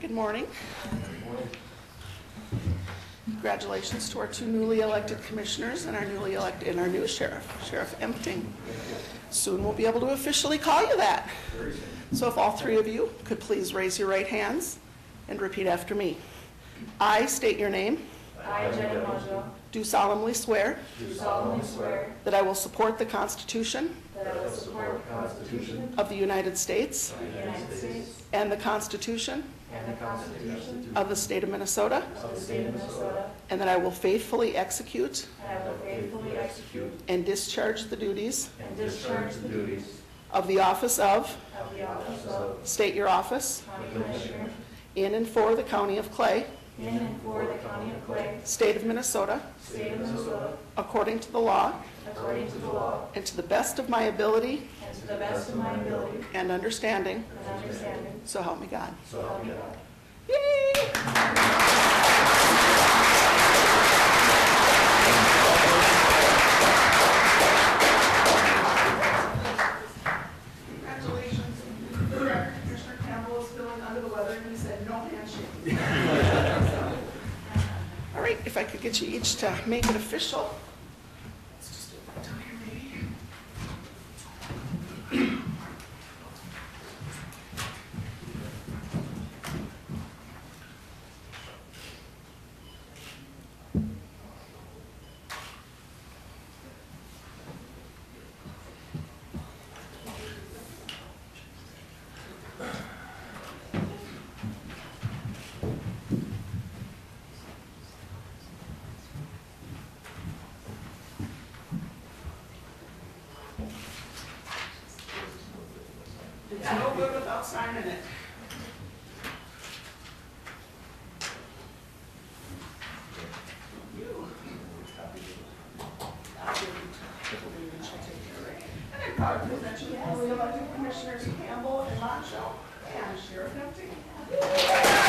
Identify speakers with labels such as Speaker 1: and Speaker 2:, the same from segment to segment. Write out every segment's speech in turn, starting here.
Speaker 1: Good morning. Congratulations to our two newly elected commissioners and our newly elected, and our new sheriff, Sheriff Empting. Soon we'll be able to officially call you that. So if all three of you could please raise your right hands and repeat after me. I state your name. I, Do solemnly swear. That I will support the Constitution. Of the United States. And the Constitution. Of the state of Minnesota. And that I will faithfully execute. And discharge the duties. Of the office of. State your office. In and for the county of Clay. State of Minnesota. According to the law. And to the best of my ability. And understanding. So help me God. So help me God. Yay! Congratulations. Commissioner Campbell was feeling under the weather, and he said, "No handshake." All right, if I could get you each to make it official. Let's just do it right down here, maybe. It's no good without signing it. You. I'll give you two. She'll take care of it. And I'm proud to present you all the elected commissioners Campbell and Monticello and Sheriff Empton.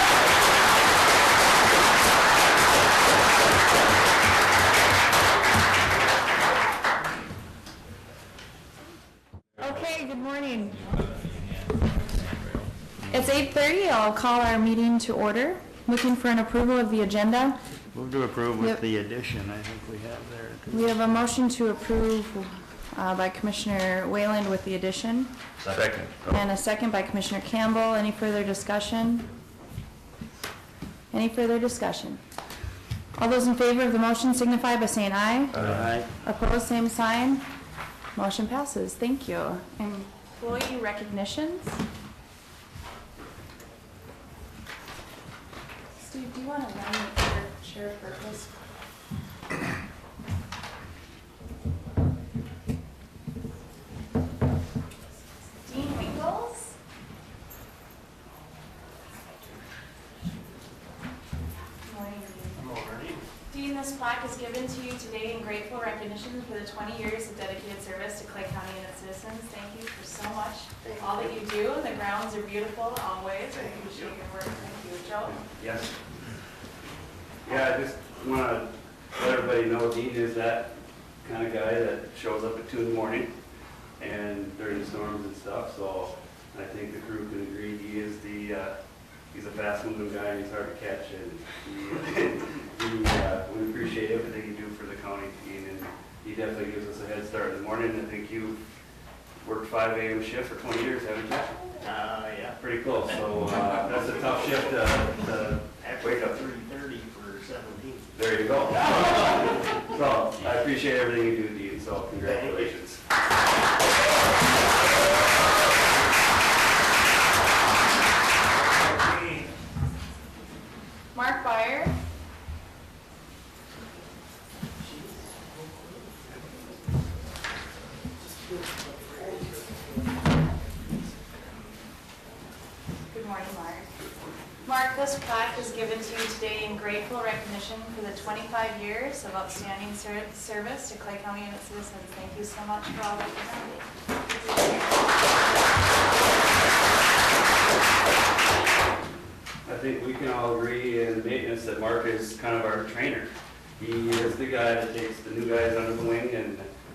Speaker 2: Okay, good morning. It's 8:30, I'll call our meeting to order. Looking for an approval of the agenda.
Speaker 3: Move to approve
Speaker 2: Yep.
Speaker 3: with the addition I think we have there.
Speaker 2: We have a motion to approve uh, by Commissioner Wayland with the addition,
Speaker 4: Second.
Speaker 2: and a second by Commissioner Campbell. Any further discussion? Any further discussion? All those in favor of the motion signify by saying aye.
Speaker 3: Aye.
Speaker 2: Opposed, same sign. Motion passes. Thank you. Employee recognitions? Steve, do you want to nominate for Sheriff Burkus? Dean Winkles?
Speaker 5: Morning. Dean, this plaque is given to you today in grateful recognition for the 20 years of dedicated service to Clay County and its citizens. Thank you for so much, all that you do. The grounds are beautiful always. I appreciate your work. Thank you, Joe.
Speaker 6: Yes. Yeah, I just want to let everybody know Dean is that kind of guy that shows up at two in the morning and during the storms and stuff, so I think the crew can agree, he is the, uh, he's a fast-moving guy, and he's hard to catch, and he, he, uh, we appreciate everything you do for the county, Dean, and he definitely gives us a head start in the morning, I think you worked five AM shift for twenty years, haven't you?
Speaker 4: Uh, yeah.
Speaker 6: Pretty close, so uh, that's a tough shift uh, to to
Speaker 4: Halfway to three thirty for seventeen.
Speaker 6: There you go. So, I appreciate everything you do, Dean, so congratulations.
Speaker 5: Mark Byer. Good morning, Mark. Mark, this plaque is given to you today in grateful recognition for the 25 years of outstanding ser- service to Clay County and its citizens. Thank you so much for all that you do.
Speaker 6: I think we can all agree in maintenance that Mark is kind of our trainer. He is the guy that takes the new guys under the wing and